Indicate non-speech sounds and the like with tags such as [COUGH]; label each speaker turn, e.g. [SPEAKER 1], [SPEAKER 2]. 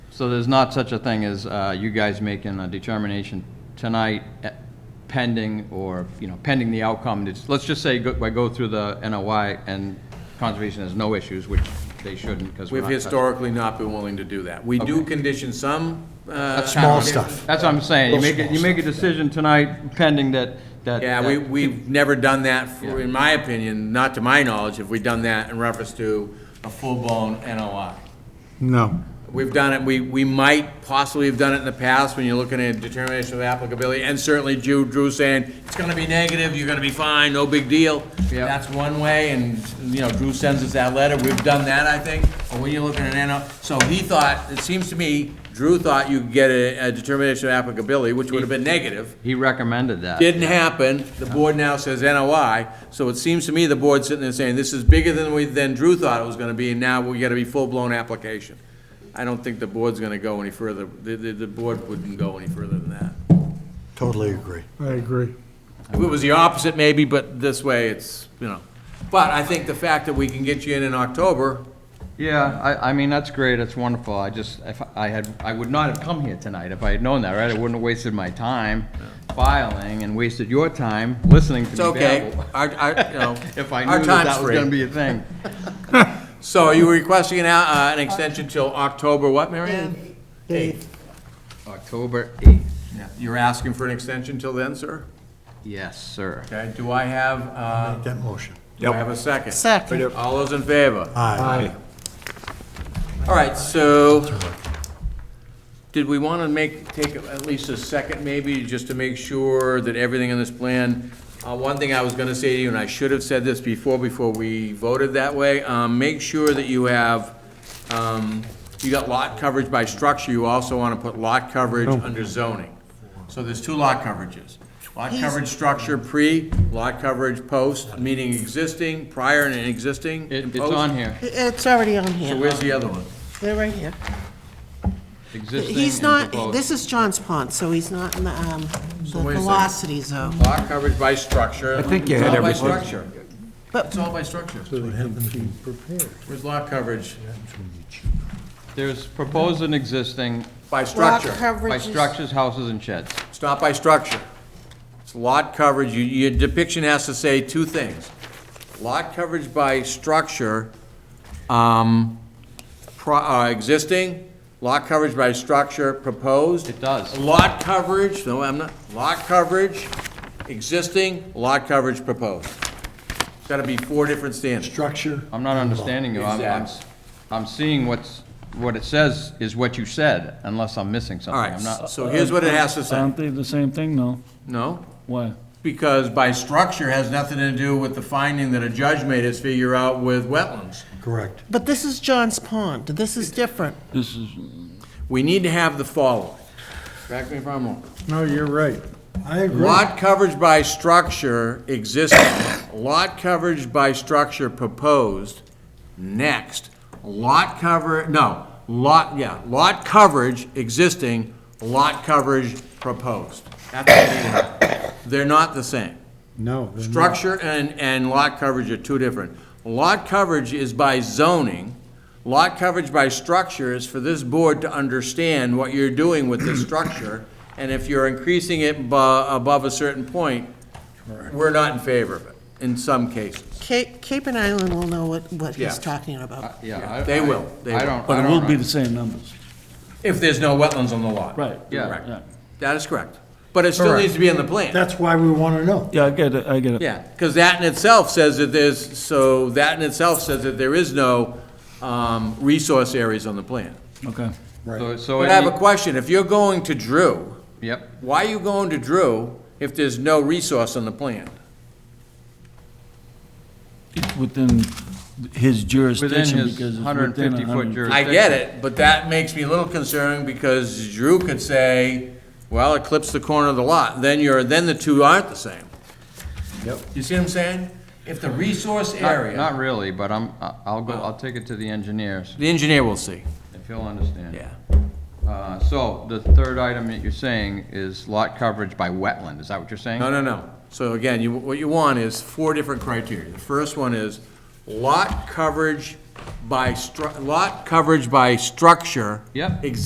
[SPEAKER 1] So there's not such a thing as uh, you guys making a determination tonight eh, pending or, you know, pending the outcome? It's- Let's just say go- I go through the NOI and conservation has no issues, which they shouldn't because we're
[SPEAKER 2] We've
[SPEAKER 1] not...
[SPEAKER 2] historically not been willing to do that. We do
[SPEAKER 1] Okay.
[SPEAKER 2] condition some. uh,
[SPEAKER 1] That's kinda
[SPEAKER 3] Small
[SPEAKER 1] what it-
[SPEAKER 3] stuff.
[SPEAKER 1] That's what I'm saying. You
[SPEAKER 3] Little
[SPEAKER 1] make, it-
[SPEAKER 3] small
[SPEAKER 1] you make a decision tonight pending that, that...
[SPEAKER 2] Yeah, we,
[SPEAKER 1] that-
[SPEAKER 2] we've never done that, for- in my opinion, not to my knowledge, have we done that in reference to a full-blown NOI.
[SPEAKER 3] No.
[SPEAKER 2] We've done it, we, we might possibly have done it in the past when you're looking at determination of applicability, and certainly Drew, Drew saying, it's gonna be negative, you're gonna be fine, no big deal.
[SPEAKER 1] Yeah.
[SPEAKER 2] That's one way, and, you know, Drew sends us that letter, we've done that, I think, but when you're looking at an, NO so he thought, it seems to me, Drew thought you could get a, a determination of applicability, which would have been negative.
[SPEAKER 1] He recommended that.
[SPEAKER 2] Didn't happen, the board now says NOI, so it seems to me the board's sitting there saying, this is bigger than we, than Drew thought it was gonna be, and now we gotta be full-blown application. I don't think the board's gonna go any further, the, the, the board wouldn't go any further than that.
[SPEAKER 3] Totally agree.
[SPEAKER 4] I agree.
[SPEAKER 2] If it was the opposite, maybe, but this way, it's, you know. But I think the fact that we can get you in in October,
[SPEAKER 1] Yeah, I, I mean, that's great, that's wonderful, I just, if I had, I would not have come here tonight if I had known that, right? I wouldn't have wasted my time filing and wasted your time listening to me
[SPEAKER 2] it's okay.
[SPEAKER 1] babble. [LAUGHS]
[SPEAKER 2] Our, our, you know,
[SPEAKER 1] If I
[SPEAKER 2] our
[SPEAKER 1] knew that
[SPEAKER 2] time's
[SPEAKER 1] that was
[SPEAKER 2] free.
[SPEAKER 1] gonna be a thing.
[SPEAKER 2] So are you requesting an, uh, an extension till October what, Mary Ann?
[SPEAKER 1] October eighth,
[SPEAKER 2] Yeah. You're asking for an extension till then, sir?
[SPEAKER 1] yes, sir.
[SPEAKER 2] Okay, do I have, uh,
[SPEAKER 3] Make that motion.
[SPEAKER 2] do I have a second?
[SPEAKER 5] Second.
[SPEAKER 2] All those in favor?
[SPEAKER 3] Aye.
[SPEAKER 2] All right, so, did we want to make, take at least a second maybe, just to make sure that everything in this plan, uh, one thing I was going to say to you, and I should have said this before, before we voted that way, um, make sure that you have, um, you got lot coverage by structure, you also want to put lot coverage under zoning. So there's two lot coverages. Lot coverage structure pre, lot coverage post, meaning existing, prior and existing.
[SPEAKER 1] It,
[SPEAKER 2] and
[SPEAKER 1] it's
[SPEAKER 2] post.
[SPEAKER 1] on here,
[SPEAKER 5] It's already on
[SPEAKER 2] So
[SPEAKER 5] here.
[SPEAKER 2] where's the other one?
[SPEAKER 5] They're right here.
[SPEAKER 1] existing
[SPEAKER 5] He's
[SPEAKER 1] and
[SPEAKER 5] not,
[SPEAKER 1] proposed.
[SPEAKER 5] this is John's Pond, so he's not in the, um,
[SPEAKER 2] wait
[SPEAKER 5] the
[SPEAKER 2] a second.
[SPEAKER 5] velocity zone.
[SPEAKER 2] Lot coverage by structure. I
[SPEAKER 3] think you had
[SPEAKER 2] It's all by structure.
[SPEAKER 5] But-
[SPEAKER 2] It's all by structure. Where's lot coverage?
[SPEAKER 1] There's proposed and existing
[SPEAKER 2] By
[SPEAKER 5] Lot
[SPEAKER 2] structure.
[SPEAKER 1] by
[SPEAKER 5] coverage is-
[SPEAKER 1] structures, houses, and sheds.
[SPEAKER 2] It's not by structure. It's lot coverage. You- Your depiction has to say two things. Lot coverage by structure, um, pro- uh, existing, lot coverage by structure proposed.
[SPEAKER 1] It does.
[SPEAKER 2] Lot coverage, no, I'm not, lot coverage, existing, lot coverage proposed. It's gotta be four different standards.
[SPEAKER 3] Structure.
[SPEAKER 1] I'm not understanding you, I'm, I'm, s- I'm seeing what's, what it says is what you said, unless I'm missing
[SPEAKER 2] All
[SPEAKER 1] something,
[SPEAKER 2] right,
[SPEAKER 1] I'm not.
[SPEAKER 2] so here's what it has to say.
[SPEAKER 6] Aren't they the same thing, no?
[SPEAKER 2] No,
[SPEAKER 6] Why?
[SPEAKER 2] because by structure has nothing to do with the finding that a judge made us figure out with wetlands.
[SPEAKER 3] Correct.
[SPEAKER 5] But this is John's Pond. This is different.
[SPEAKER 6] This is,
[SPEAKER 2] We need to have the following. Correct me if I'm wrong.
[SPEAKER 4] No, you're right. I agree.
[SPEAKER 2] Lot coverage by structure existing, lot coverage by structure proposed, next. Lot cover, no, lot, yeah, lot coverage existing, lot coverage proposed. That's what we need. They're not the same.
[SPEAKER 4] No. they're not.
[SPEAKER 2] Structure and, and lot coverage are two different. Lot coverage is by zoning. Lot coverage by structure is for this board to understand what you're doing with the structure. And if you're increasing it bu- above a certain point, we're not in favor of it, in some cases.
[SPEAKER 5] Cape, Cape and Island will know what, what
[SPEAKER 2] Yeah.
[SPEAKER 5] he's talking about.
[SPEAKER 1] Yeah, I-
[SPEAKER 2] They
[SPEAKER 1] I-
[SPEAKER 2] will, they
[SPEAKER 1] I
[SPEAKER 2] will.
[SPEAKER 1] don't, I
[SPEAKER 6] but it
[SPEAKER 1] don't
[SPEAKER 6] will be
[SPEAKER 1] know.
[SPEAKER 6] the same numbers,
[SPEAKER 2] If there's no wetlands on the lot.
[SPEAKER 6] right?
[SPEAKER 1] Yeah.
[SPEAKER 2] Correct.
[SPEAKER 6] Yeah.
[SPEAKER 2] That is correct. But it still needs to be in the plan.
[SPEAKER 3] That's why we want to know.
[SPEAKER 6] Yeah, I get it, I get it.
[SPEAKER 2] Yeah, because that in itself says that there's, so that in itself says that there is no, um, resource areas on the plan.
[SPEAKER 6] Okay.
[SPEAKER 1] So, so,
[SPEAKER 2] But I have
[SPEAKER 1] it-
[SPEAKER 2] a question, if you're going to Drew,
[SPEAKER 1] yep,
[SPEAKER 2] why are you going to Drew if there's no resource on the plan?
[SPEAKER 6] It's within his jurisdiction
[SPEAKER 1] his
[SPEAKER 6] because it's within
[SPEAKER 1] 150 foot
[SPEAKER 6] 150
[SPEAKER 1] jurisdiction.
[SPEAKER 2] I get it, but that makes me a little concerned because Drew could say, well, it clips the corner of the lot, then you're, then the two aren't the same.
[SPEAKER 3] Yep.
[SPEAKER 2] You see what I'm saying? If the resource
[SPEAKER 1] not,
[SPEAKER 2] area,
[SPEAKER 1] not really, but I'm, I- I'll go, I'll take it to the engineers,
[SPEAKER 2] the engineer will see,
[SPEAKER 1] if he'll understand.
[SPEAKER 2] yeah.
[SPEAKER 1] Uh, so, the third item that you're saying is lot coverage by wetland, is that what you're saying?
[SPEAKER 2] No, no, no. So again, you, what you want is four different criteria. The first one is lot coverage by stru, lot coverage by structure.
[SPEAKER 1] Yep.
[SPEAKER 2] Existing